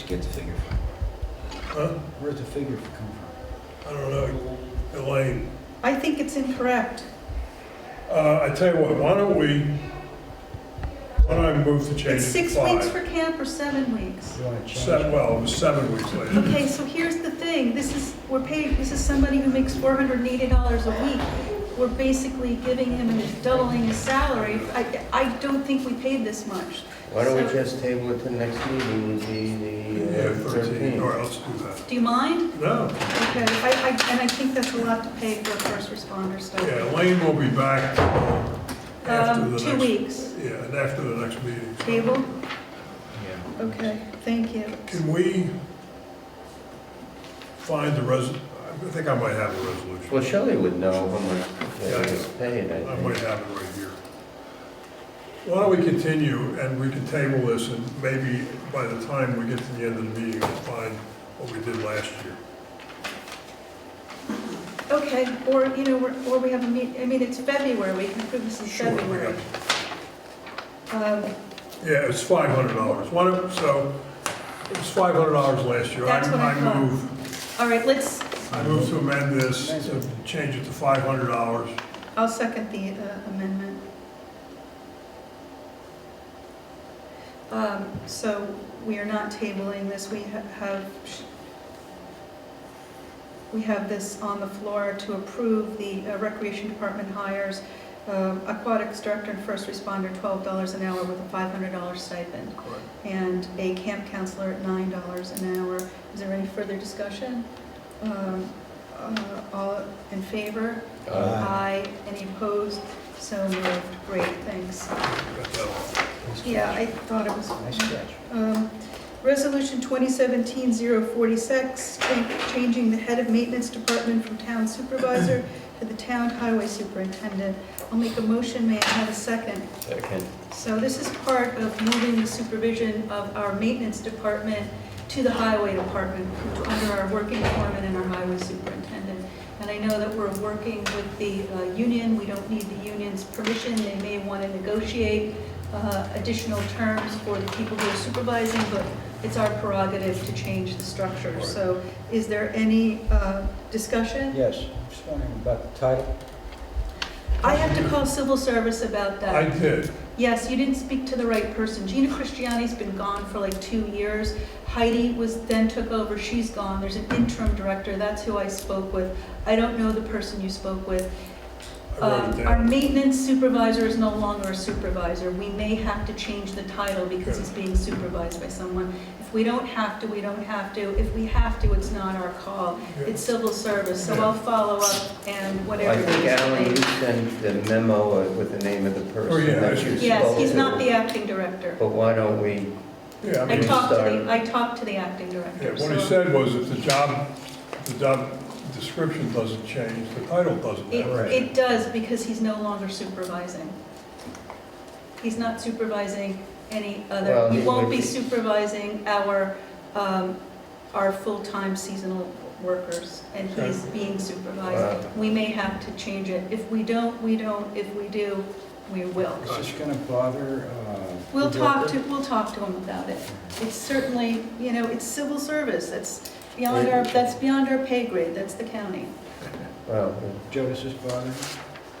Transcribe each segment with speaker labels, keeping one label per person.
Speaker 1: you get the figure from?
Speaker 2: Huh?
Speaker 1: Where'd the figure come from?
Speaker 2: I don't know, Elaine.
Speaker 3: I think it's incorrect.
Speaker 2: Uh, I tell you what, why don't we, why don't I move to change
Speaker 3: It's
Speaker 2: it
Speaker 3: six
Speaker 2: to
Speaker 3: weeks
Speaker 2: five?
Speaker 3: for camp or seven weeks.
Speaker 1: You want to change
Speaker 2: Se-
Speaker 1: it?
Speaker 2: Well, it was seven weeks later.
Speaker 3: Okay, so here's the thing, this is, we're paying, this is somebody who makes four hundred and eighty dollars a week. We're basically giving him and doubling his salary. I, I don't think we paid this much.
Speaker 4: Why don't we
Speaker 3: So-
Speaker 4: just table it to the next meeting, would be the
Speaker 2: Yeah,
Speaker 4: uh,
Speaker 2: 13, or
Speaker 4: 13th?
Speaker 2: else do that.
Speaker 3: Do you mind?
Speaker 2: No,
Speaker 3: Okay, I, I, and I think that's a lot to pay for a first responder
Speaker 2: yeah,
Speaker 3: stipend.
Speaker 2: Elaine will be back after the
Speaker 3: Um,
Speaker 2: next.
Speaker 3: two weeks.
Speaker 2: Yeah, and after the next meeting. so.
Speaker 3: Table?
Speaker 1: Yeah.
Speaker 3: Okay, thank you.
Speaker 2: Can we find the res, I think I might have a resolution.
Speaker 4: Well, Shelley would know how much
Speaker 2: Yeah, I
Speaker 4: it was paid, I
Speaker 2: I might
Speaker 4: think.
Speaker 2: have it right here. Why don't we continue and we can table this and maybe by the time we get to the end of the meeting, we'll find what we did last year.
Speaker 3: Okay, or, you know, we're- or we have a meet, I mean, it's February, we can approve this in
Speaker 2: Sure, we
Speaker 3: February. Um,
Speaker 2: Yeah, it's five hundred dollars. One of, so it was five hundred dollars last year.
Speaker 3: That's what I thought.
Speaker 2: move-
Speaker 3: All right, let's,
Speaker 2: I move to amend this, to change it to five hundred dollars.
Speaker 3: I'll second the uh, amendment. Um, So we are not tabling this, we ha- have, we have this on the floor to approve the uh, Recreation Department hires um, aquatics director and first responder $12 an hour with a $500 stipend, and a camp counselor at $9 an hour. Is there any further discussion? Um, uh, All in favor?
Speaker 4: Uh,
Speaker 3: Aye. Any opposed? So moved. Great, thanks. Yeah, I thought it was.
Speaker 1: Nice catch.
Speaker 3: Um, Resolution 2017-046, cha- changing the head of maintenance department from town supervisor to the town highway superintendent. I'll make a motion, may I have a second?
Speaker 4: Second.
Speaker 3: So this is part of moving the supervision of our maintenance department to the highway department, to- under our working foreman and our highway superintendent. And I know that we're working with the uh, union, we don't need the union's permission, they may want to negotiate uh, additional terms for the people who are supervising, but it's our prerogative to change the structure. So is there any uh, discussion?
Speaker 1: Yes, I'm just wondering about the title.
Speaker 3: I have to call civil service about that.
Speaker 2: I did.
Speaker 3: Yes, you didn't speak to the right person. Gina Christiani's been gone for like two years. Heidi was, then took over, she's gone. There's an interim director, that's who I spoke with. I don't know the person you spoke with.
Speaker 2: I wrote it
Speaker 3: Um, Our
Speaker 2: down.
Speaker 3: maintenance supervisor is no longer a supervisor. We may have to change the title because he's being supervised by someone. If we don't have to, we don't have to. If we have to, it's not our call.
Speaker 2: Yeah.
Speaker 3: It's civil service, so I'll follow up and whatever.
Speaker 4: I think,
Speaker 3: is
Speaker 4: Alan, you
Speaker 3: needed.
Speaker 4: sent the memo with the name of the
Speaker 2: Oh, yeah,
Speaker 4: person that you spoke to.
Speaker 3: Yes, he's not the acting director.
Speaker 4: But why don't we,
Speaker 2: Yeah, I
Speaker 3: I
Speaker 2: mean,
Speaker 3: talked to
Speaker 4: sorry.
Speaker 3: the, I talked to the acting
Speaker 2: yeah,
Speaker 3: director,
Speaker 2: what he
Speaker 3: so.
Speaker 2: said was if the job, the job description doesn't change, the title doesn't.
Speaker 3: It,
Speaker 2: have to change.
Speaker 3: it does, because he's no longer supervising. He's not supervising any other,
Speaker 4: Well,
Speaker 3: he
Speaker 4: he
Speaker 3: won't
Speaker 4: would
Speaker 3: be
Speaker 4: be-
Speaker 3: supervising our, um, our full-time seasonal workers, and he's being
Speaker 4: Wow.
Speaker 3: supervised. We may have to change it. If we don't, we don't. If we do, we will.
Speaker 1: Is this going to bother? uh,
Speaker 3: We'll
Speaker 1: the
Speaker 3: talk
Speaker 1: worker?
Speaker 3: to, we'll talk to him about it. It's certainly, you know, it's civil service, that's beyond our, that's beyond our pay grade, that's the county.
Speaker 4: well,
Speaker 1: Joe, does this bother?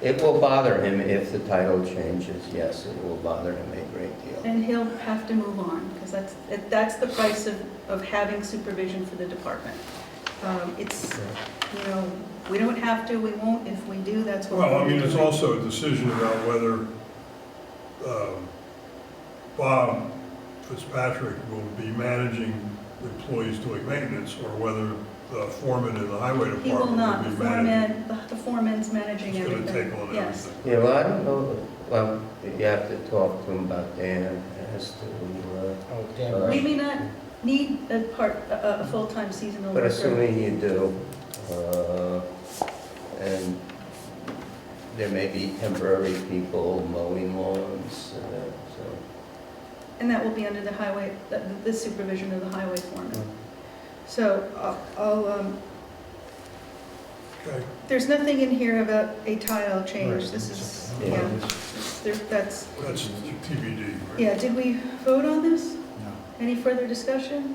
Speaker 4: it will bother him if the title changes, yes, it will bother him a great deal.
Speaker 3: And he'll have to move on, because that's, that- that's the price of, of having supervision for the department. Um, It's, you know, we don't have to, we won't, if we do, that's what.
Speaker 2: Well, I
Speaker 3: we'll
Speaker 2: mean,
Speaker 3: do.
Speaker 2: it's also a decision about whether um, Bob Fitzpatrick will be managing employees doing maintenance or whether the foreman in the highway department
Speaker 3: He will not, the
Speaker 2: be managing.
Speaker 3: foreman, the the foreman's managing
Speaker 2: He's
Speaker 3: everything.
Speaker 2: going to take on
Speaker 3: Yes.
Speaker 2: everything.
Speaker 4: Yeah, well, I don't know, well, you have to talk to him about Dan as to, uh,
Speaker 1: Oh, damn
Speaker 4: Uh,
Speaker 3: We
Speaker 1: right.
Speaker 3: may not need a part, a, a- a full-time seasonal
Speaker 4: But
Speaker 3: worker.
Speaker 4: assuming you do, uh, and there may be temporary people mowing lawns, uh, so.
Speaker 3: And that will be under the highway, the the supervision of the highway
Speaker 4: Mm.
Speaker 3: foreman. So I'll- I'll, um,
Speaker 2: Okay,
Speaker 3: there's nothing in here about a tile change. This is,
Speaker 4: Yeah.
Speaker 3: yeah, there- that's,
Speaker 2: that's TBD. right?
Speaker 3: yeah, did we vote on this?
Speaker 1: No.
Speaker 3: Any further discussion?